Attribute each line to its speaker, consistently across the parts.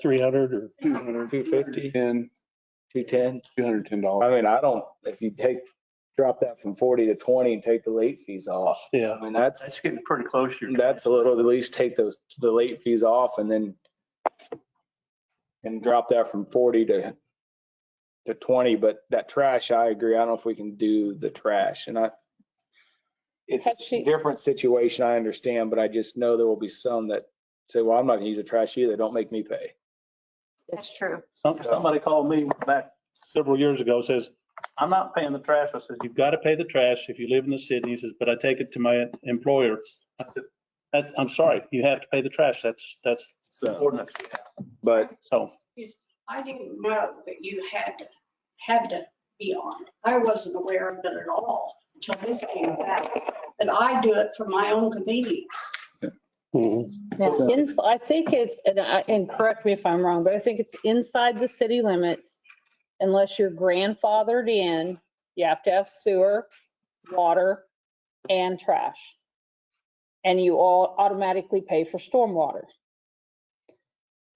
Speaker 1: three hundred or
Speaker 2: Two hundred, two
Speaker 3: 250?
Speaker 2: fifty, ten,
Speaker 3: two ten.
Speaker 2: two hundred ten
Speaker 3: I
Speaker 2: dollars.
Speaker 3: mean, I don't, if you take, drop that from forty to twenty and take the late fees off.
Speaker 1: yeah.
Speaker 3: I mean, that's,
Speaker 4: That's getting pretty close to your.
Speaker 3: that's a little, at least take those, the late fees off and then and drop that from forty to to twenty, but that trash, I agree. I don't know if we can do the trash and I it's
Speaker 5: Has
Speaker 3: a
Speaker 5: she-
Speaker 3: different situation, I understand, but I just know there will be some that say, well, I'm not gonna use the trash either. Don't make me pay.
Speaker 6: That's true.
Speaker 1: Some-
Speaker 3: So-
Speaker 1: Somebody called me back several years ago, says, I'm not paying the trash. I says, you've got to pay the trash if you live in the city. He says, but I take it to my employer. I said, "That- I'm sorry, you have to pay the trash. That's, that's the
Speaker 3: So,
Speaker 1: ordinance. we have."
Speaker 3: but
Speaker 1: So
Speaker 7: I didn't know that you had, to had to be on. it. I wasn't aware of it at all until this came about. But I do it for my own convenience.
Speaker 1: Mhm.
Speaker 5: Now, ins- I think it's, and I- and correct me if I'm wrong, but I think it's inside the city limits. Unless you're grandfathered in, you have to have sewer, water, and trash. And you all automatically pay for stormwater.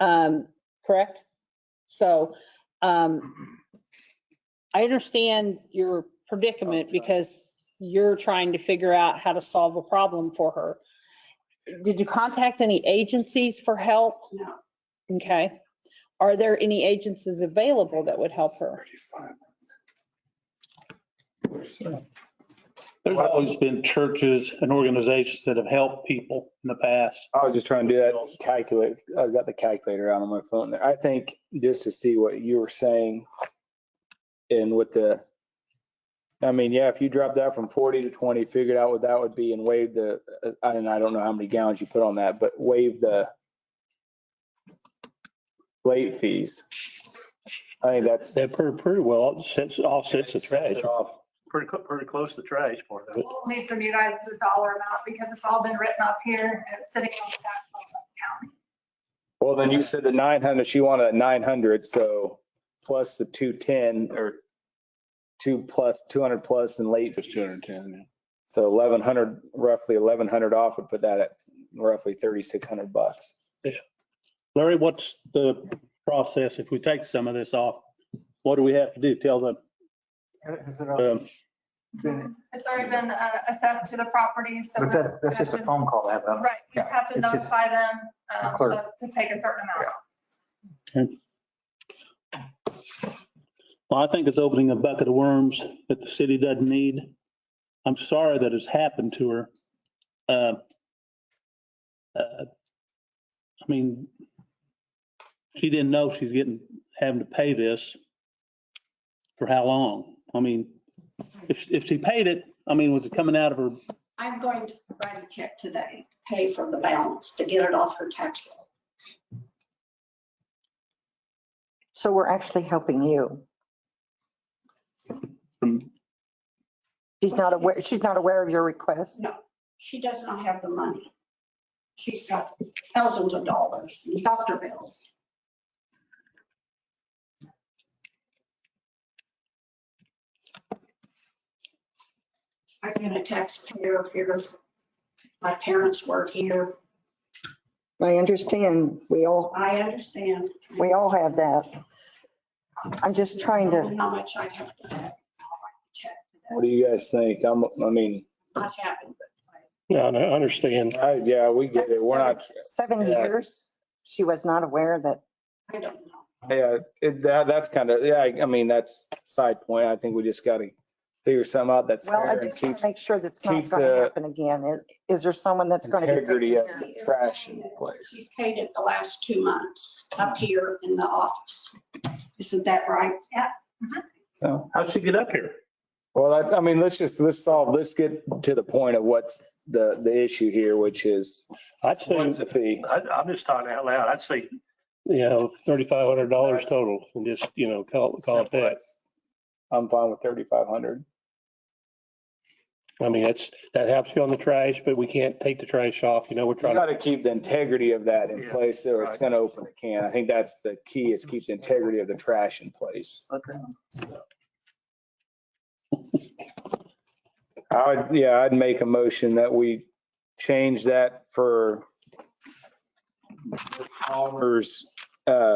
Speaker 5: Um, Correct? So um, I understand your predicament because you're trying to figure out how to solve a problem for her. Did you contact any agencies for help?
Speaker 7: No.
Speaker 5: Okay. Are there any agencies available that would help her?
Speaker 1: There's always been churches and organizations that have helped people in the past.
Speaker 3: I was just trying to do that calculate. I've got the calculator out on my phone there. I think just to see what you were saying and with the, I mean, yeah, if you drop that from 40 to 20, figured out what that would be and waive the, uh, and I don't know how many gallons you put on that, but waive the late fees. I think that's.
Speaker 1: That pretty, pretty well offsets, offsets the trash.
Speaker 3: Off.
Speaker 4: Pretty, cl- pretty close to the trash part of it.
Speaker 6: We'll need from you guys the dollar amount because it's all been written up here and it's sitting on the tax bill of the county.
Speaker 3: Well, then you said the 900, she wanted a 900, so plus the 210 or two plus, 200 plus in late
Speaker 2: It's two
Speaker 3: fees.
Speaker 2: hundred ten.
Speaker 3: So eleven hundred, roughly eleven hundred off would put that at roughly thirty-six hundred bucks.
Speaker 1: Larry, what's the process if we take some of this off? What do we have to do? Tell the,
Speaker 8: Has it all
Speaker 1: um,
Speaker 8: been-
Speaker 6: It's already been uh, assessed to the property, so
Speaker 8: But
Speaker 6: the-
Speaker 8: that, that's just a phone call, that, um,
Speaker 6: right, you just have to
Speaker 8: It's just-
Speaker 6: notify them um,
Speaker 8: The clerk.
Speaker 6: of- to take a certain amount.
Speaker 1: well, I think it's opening a bucket of worms that the city doesn't need. I'm sorry that it's happened to her. Uh, uh, I mean, she didn't know she's getting, having to pay this for how long? I mean, if, if she paid it, I mean, was it coming out of her
Speaker 7: I'm going to write a check today, pay for the balance to get it off her tax bill.
Speaker 9: So we're actually helping you.
Speaker 3: Um,
Speaker 1: from
Speaker 9: She's not aware, she's not aware of your request.
Speaker 7: She does not have the money. She's got thousands of dollars, in doctor bills. I've been a taxpayer here. My parents work here.
Speaker 9: I understand. We all,
Speaker 7: I understand.
Speaker 9: we all have that. I'm just trying to,
Speaker 7: How much I have to have. Check
Speaker 3: What do you guys think? I'm, I mean,
Speaker 7: Not happened, but
Speaker 4: Yeah, I understand.
Speaker 3: I, yeah, we get it. We're not,
Speaker 9: seven
Speaker 3: Yeah.
Speaker 9: years, she was not aware that
Speaker 7: I don't know.
Speaker 3: yeah, it, that, that's kind of, yeah, I- I mean, that's side point. I think we just gotta figure something out that's
Speaker 9: Well,
Speaker 3: fair
Speaker 9: I
Speaker 3: and
Speaker 9: just want
Speaker 3: keeps
Speaker 9: to make sure that's not
Speaker 3: keeps
Speaker 9: going
Speaker 3: the
Speaker 9: to happen again. Is- Is there someone that's going to be?
Speaker 3: integrity
Speaker 9: taking
Speaker 3: of
Speaker 9: care
Speaker 7: of it.
Speaker 3: trash in place.
Speaker 7: She's paid it the last two months up here in the office. Isn't that right?
Speaker 6: Yes. Mm-hmm.
Speaker 3: So.
Speaker 1: How'd she get up here?
Speaker 3: Well, I, I mean, let's just, let's solve, let's get to the point of what's the, the issue here, which is
Speaker 1: I'd say,
Speaker 3: what's the fee?
Speaker 4: I, I'm just talking out loud. I'd say
Speaker 1: you know, thirty-five hundred dollars total and just, you know, call, call it that.
Speaker 3: I'm fine with thirty-five hundred.
Speaker 4: I mean, that's, that helps you on the trash, but we can't take the trash off. You know, we're
Speaker 3: You gotta keep the integrity of that in
Speaker 4: Yeah,
Speaker 3: place, or it's
Speaker 4: right.
Speaker 3: gonna open a can. I think that's the key, is keep the integrity of the trash in place. I would, yeah, I'd make a motion that we change that for Palmer's, uh,